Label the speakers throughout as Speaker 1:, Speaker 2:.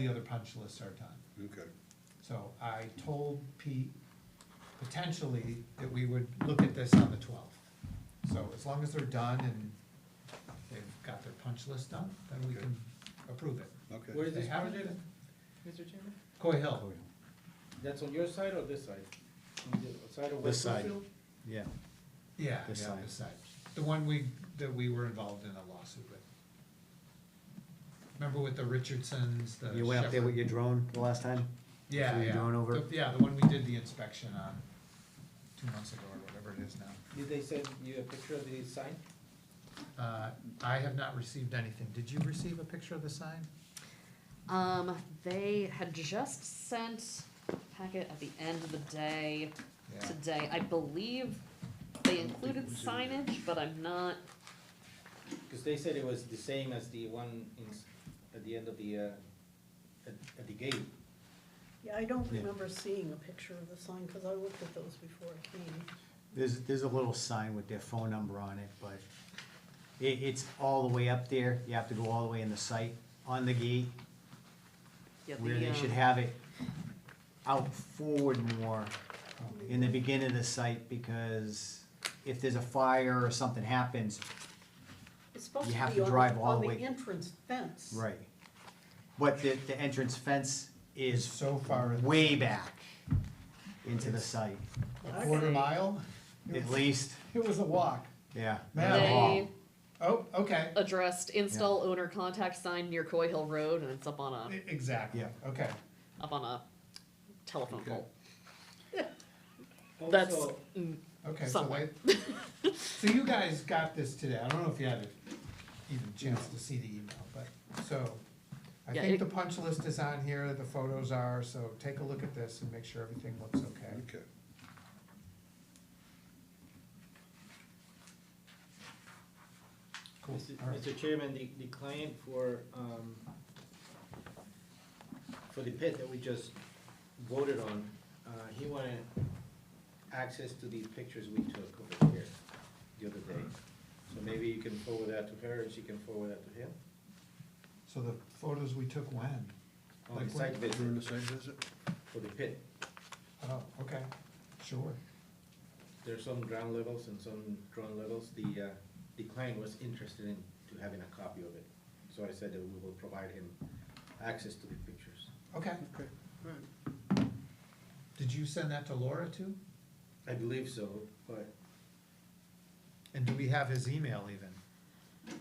Speaker 1: the other punch lists are done.
Speaker 2: Okay,
Speaker 1: So I told Pete potentially that we would look at this on the twelfth. So as long as they're done and they've got their punch list done, then we can approve it.
Speaker 2: okay.
Speaker 3: Where is
Speaker 1: They
Speaker 3: this
Speaker 1: haven't-
Speaker 3: project, Mr. Chairman?
Speaker 1: Coy Hill,
Speaker 3: That's on your side or this side? On the side of
Speaker 4: This
Speaker 3: West
Speaker 4: side.
Speaker 3: Bloomfield?
Speaker 4: Yeah,
Speaker 1: yeah, yeah,
Speaker 4: This side.
Speaker 1: this side, the one we, that we were involved in a lawsuit with. Remember with the Richardsons, the
Speaker 4: you went up there with
Speaker 1: Shepherd-
Speaker 4: your drone the last time?
Speaker 1: Yeah,
Speaker 4: Threw
Speaker 1: yeah.
Speaker 4: your drone over?
Speaker 1: The- Yeah, the one we did the inspection on two months ago or whatever it is now.
Speaker 3: Did they send you a picture of the sign?
Speaker 1: Uh, I have not received anything. Did you receive a picture of the sign?
Speaker 5: Um, they had just sent a packet at the end of the day
Speaker 1: Yeah.
Speaker 5: today. I believe they included signage, but I'm not.
Speaker 3: Cause they said it was the same as the one in, s- at the end of the, uh, at, at the gate.
Speaker 6: Yeah, I don't
Speaker 4: Yeah.
Speaker 6: remember seeing a picture of the sign, because I looked at those before I came.
Speaker 4: There's, there's a little sign with their phone number on it, but it, it's all the way up there, you have to go all the way in the site, on the gate,
Speaker 5: Yeah, the,
Speaker 4: where they
Speaker 5: um,
Speaker 4: should have it out forward more in the beginning of the site, because if there's a fire or something happens,
Speaker 6: It's supposed
Speaker 4: You
Speaker 6: to
Speaker 4: have
Speaker 6: be
Speaker 4: to
Speaker 6: on,
Speaker 4: drive
Speaker 6: the-
Speaker 4: all
Speaker 6: on
Speaker 4: the
Speaker 6: the
Speaker 4: way-
Speaker 6: entrance fence.
Speaker 4: right. But the, the entrance fence is
Speaker 1: So far, in-
Speaker 4: way back into the site,
Speaker 1: a quarter
Speaker 6: Okay.
Speaker 1: mile? It
Speaker 4: at
Speaker 1: was-
Speaker 4: least,
Speaker 1: It was a walk.
Speaker 4: yeah.
Speaker 1: Man,
Speaker 4: the hall.
Speaker 5: They
Speaker 1: Oh, okay,
Speaker 5: addressed install owner contact sign near Coy Hill Road, and it's up on
Speaker 1: I-
Speaker 5: a
Speaker 1: E, exactly,
Speaker 4: Yeah.
Speaker 1: okay.
Speaker 5: up on a telephone
Speaker 2: Okay.
Speaker 5: pole. That's
Speaker 3: Also,
Speaker 5: mm,
Speaker 1: Okay, so
Speaker 5: Somewhat.
Speaker 1: they, so you guys got this today, I don't know if you had a- even a chance to see the email, but, so. I
Speaker 5: Yeah,
Speaker 1: think
Speaker 5: it-
Speaker 1: the punch list is on here, the photos are, so take a look at this and make sure everything looks okay.
Speaker 2: Okay.
Speaker 1: Cool,
Speaker 3: Mr.
Speaker 1: all right.
Speaker 3: Mr. Chairman, the, the client for, um, for the pit that we just voted on, uh, he wanted access to the pictures we took over here the other day. So maybe you can forward that to her and she can forward that to him
Speaker 1: So the photos we took when?
Speaker 3: on
Speaker 1: Like
Speaker 3: the site visit
Speaker 2: During the site visit?
Speaker 3: for the pit.
Speaker 1: Oh, okay, sure.
Speaker 3: There's some ground levels and some drone levels. The, uh, the client was interested in to having a copy of it. So I said that we will provide him access to the pictures.
Speaker 1: Okay,
Speaker 2: Okay, all right.
Speaker 1: did you send that to Laura too?
Speaker 3: I believe so, but
Speaker 1: And do we have his email even?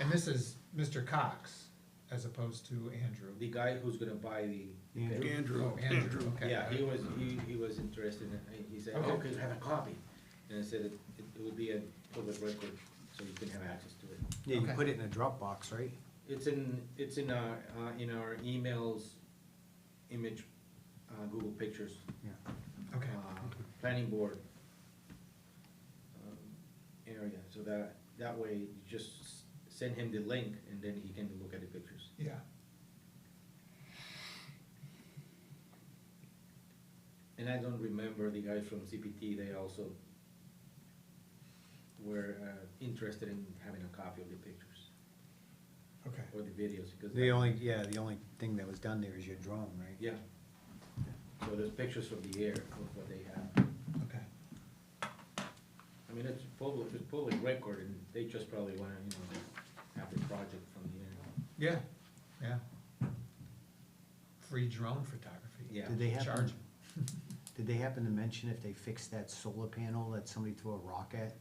Speaker 1: And this is Mr. Cox as opposed to Andrew.
Speaker 3: The guy who's gonna buy the.
Speaker 4: Yeah.
Speaker 3: pit.
Speaker 2: Andrew.
Speaker 1: Oh, Andrew, okay.
Speaker 3: Yeah, he was, he, he was interested in, it. he said, oh,
Speaker 1: Okay.
Speaker 3: could you have a copy? And I said, it, it would be a public record, so you can have access to it.
Speaker 4: Yeah, you
Speaker 1: Okay.
Speaker 4: put it in a Dropbox, right?
Speaker 3: It's in, it's in our, uh, in our emails, image, uh, Google Pictures,
Speaker 4: Yeah.
Speaker 3: uh,
Speaker 1: Okay,
Speaker 3: planning board. um, Area, so that, that way, you just s- send him the link and then he can look at the pictures.
Speaker 1: yeah.
Speaker 3: And I don't remember the guys from CPT, they also were uh, interested in having a copy of the pictures
Speaker 1: Okay,
Speaker 3: or the videos because.
Speaker 4: The only, yeah, the only thing that was done there is your drone, right?
Speaker 3: Yeah. So there's pictures from the air of what they have.
Speaker 1: okay.
Speaker 3: I mean, it's public, it's public record and they just probably wanna, you know, have the project from the air.
Speaker 1: Yeah, yeah. Free drone photography.
Speaker 3: Yeah.
Speaker 4: Did they happen,
Speaker 1: Charge.
Speaker 4: did they happen to mention if they fixed that solar panel that somebody threw a rock at?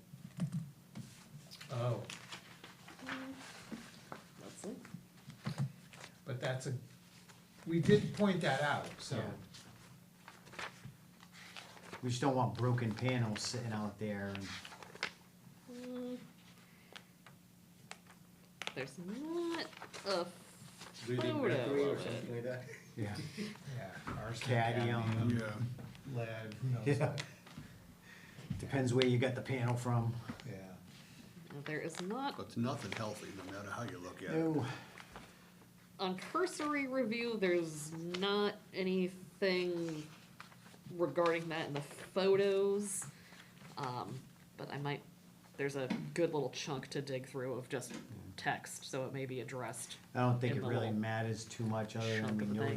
Speaker 1: Oh,
Speaker 5: let's see.
Speaker 1: but that's a, we did point that out, so.
Speaker 4: Yeah. We just don't want broken panels sitting out there and,
Speaker 5: Mm. There's not a
Speaker 3: Breathing
Speaker 5: Photo
Speaker 3: mercury or
Speaker 5: of it.
Speaker 3: something like that.
Speaker 4: yeah,
Speaker 1: Yeah. arsenic,
Speaker 4: Cadmium.
Speaker 1: cadmium,
Speaker 2: Yeah,
Speaker 1: Lead, who knows
Speaker 4: Yeah.
Speaker 1: what,
Speaker 4: depends where you got the panel from.
Speaker 1: yeah.
Speaker 5: there is not
Speaker 2: but it's nothing healthy, no matter how you look at it.
Speaker 4: No,
Speaker 5: on cursory review, there's not anything regarding that in the photos. Um, but I might, there's a good little chunk to dig through of just
Speaker 4: text, so it may be addressed
Speaker 5: I don't think
Speaker 4: In
Speaker 5: it
Speaker 4: the
Speaker 5: really
Speaker 4: little
Speaker 5: matters too much other than
Speaker 4: chunk
Speaker 5: we
Speaker 4: of
Speaker 5: know
Speaker 4: thing.